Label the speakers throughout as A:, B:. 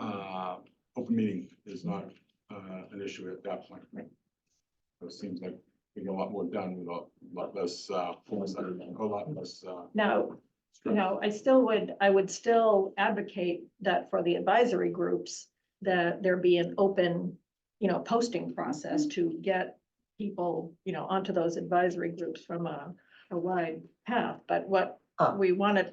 A: um, open meeting is not uh an issue at that point. So It seems like we get a lot more done with a lot less uh, force, a lot less uh.
B: Now, you
A: stress.
B: know, I still would, I would still advocate that for the advisory groups, that there be an open, you know, posting process to get people, you know, onto those advisory groups from a, a wide path, but what
C: Ah.
B: we want to not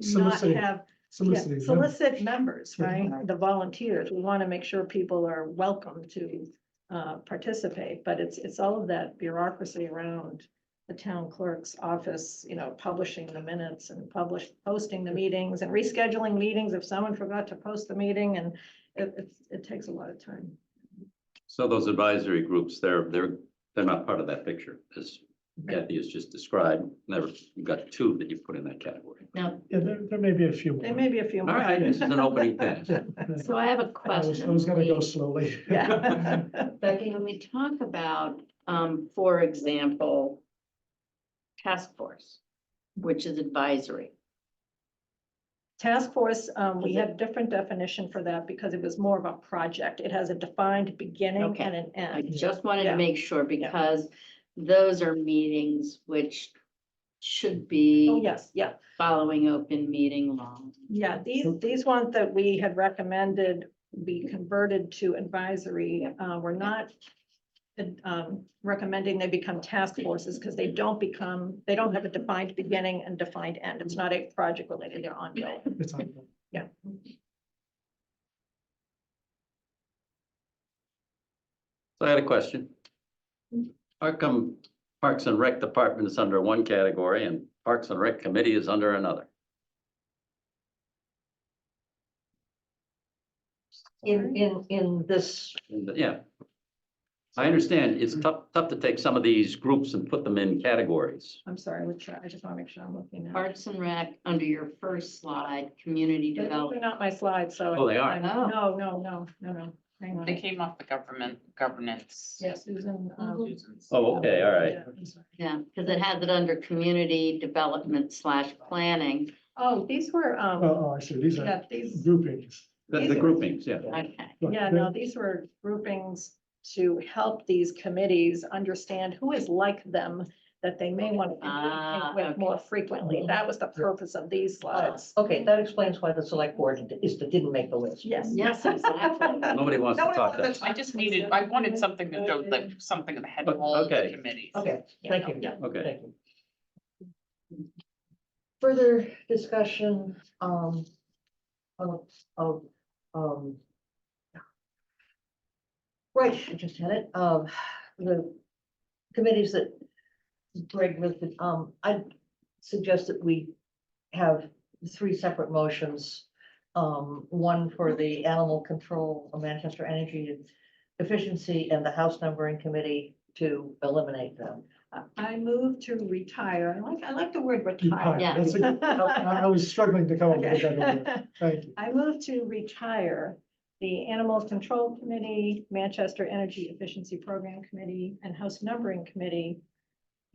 D: Soliciting,
B: have, yeah,
D: soliciting. yeah.
B: solicit members, right?
C: Mhm.
B: The volunteers, we want to make sure people are welcome to uh, participate, but it's, it's all of that bureaucracy around the town clerk's office, you know, publishing the minutes and publish, posting the meetings and rescheduling meetings if someone forgot to post the meeting and it, it's, it takes a lot of time.
E: So those advisory groups, they're, they're, they're not part of that picture, as Kathy has just described. Never, you got two that you put in that category.
F: Now,
D: Yeah, there, there may be a few.
B: There
D: more.
B: may be a few
E: All
B: more.
E: right, this is an opening pass.
D: I
F: so I have a
D: was,
F: question.
D: I was gonna go
F: please.
D: slowly.
B: Yeah.
F: Becky, when we talk about, um, for example, task force, which is advisory.
B: Task force, um, we
F: Is it-
B: had different definition for that because it was more of a project. It has a defined beginning
F: Okay.
B: and an
F: I
B: end.
F: just wanted
B: Yeah.
F: to make sure because those are meetings which should be
B: Oh, yes, yeah.
F: following open meeting law.
B: Yeah, these, these ones that we had recommended be converted to advisory, uh, we're not um, recommending they become task forces because they don't become, they don't have a defined beginning and defined end. It's not a project related, they're ongoing.
D: It's on.
E: So I had a question. How come Parks and Rec Department is under one category and Parks and Rec Committee is under another?
C: In, in, in this,
E: And, uh, Yeah. I understand it's tough, tough to take some of these groups and put them in categories.
B: I'm sorry, I'm try- I just want to make sure I'm looking at.
F: Parks and Rec, under your first slide, community
B: They're
F: development.
B: not my slides, so.
E: Oh, they are.
B: I'm-
F: uh,
B: No,
F: Oh.
B: no, no, no, no. Hang
G: They
B: on.
G: came off the government governance.
B: Yeah, Susan. um,
G: Susan's.
E: Oh, okay, all right.
B: yeah, I'm sorry.
F: Yeah, because it has it under community development slash planning.
B: Oh, these were,
D: Oh,
B: um,
D: oh, I see, these are
B: yeah, these.
D: groupings.
E: The, the groupings, yeah.
F: Okay.
D: Look,
B: Yeah,
D: there-
B: no, these were groupings to help these committees understand who is like them that they may want to
F: Ah,
B: communicate with more
F: okay.
B: frequently. That was the purpose of these slides.
C: okay, that explains why the select board is, that didn't make the list.
B: Yes.
F: Yes, exactly.
E: Nobody wants to
B: Nobody
E: talk
B: wants
E: that.
B: to
G: I just needed, I wanted something to go, like, something that had all the
E: Okay.
G: committees.
C: Okay, thank you.
B: Yeah.
E: Okay.
C: Thank you. Further discussion, um, of, of, um. Right, I just had it, um, the committees that Greg listed, um, I suggest that we have three separate motions. Um, one for the Animal Control, uh, Manchester Energy Efficiency and the House Numbering Committee to eliminate them.
B: I move to retire. I like, I like the word
D: Retire,
B: retire.
F: Yeah.
D: that's a- I I was struggling to come up with that. word.
B: Okay.
D: Thank you.
B: I move to retire the Animal Control Committee, Manchester Energy Efficiency Program Committee, and House Numbering Committee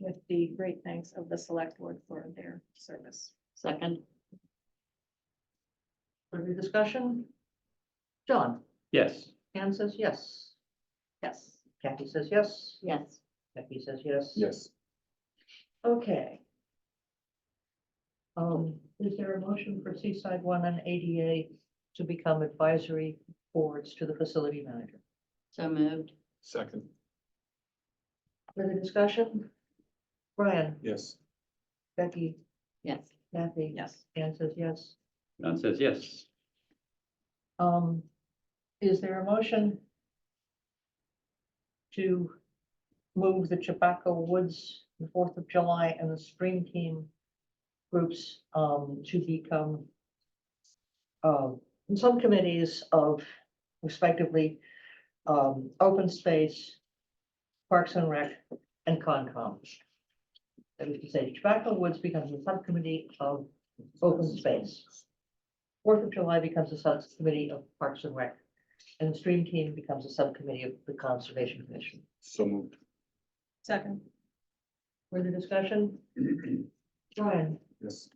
B: with the great thanks of the Select Board for their service.
F: Second,
C: Further discussion? John,
E: Yes.
C: Anne says yes.
B: Yes.
C: Kathy says yes.
F: yes.
C: Becky says yes.
A: Yes,
C: Okay. Um, is there a motion for Seaside One and ADA to become advisory boards to the facility manager?
F: So moved,
A: second,
C: Further discussion? Brian,
A: yes,
C: Becky,
F: yes.
C: Kathy?
B: Yes.
C: Anne says yes.
E: John says yes.
C: Um, is there a motion to move the Chabaco Woods, the Fourth of July and the Spring Team groups, um, to become um, subcommittees of respectively, um, open space, parks and rec, and Concom. That is to say, Chabaco Woods becomes a subcommittee of open space. Fourth of July becomes a subcommittee of Parks and Rec, and the Stream Team becomes a subcommittee of the Conservation Commission.
A: so moved,
B: Second.
C: Further discussion? Brian,
A: yes,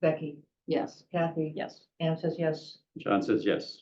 C: Becky,
F: Yes.
C: Kathy?
B: Yes.
C: Anne says yes.
E: John says yes.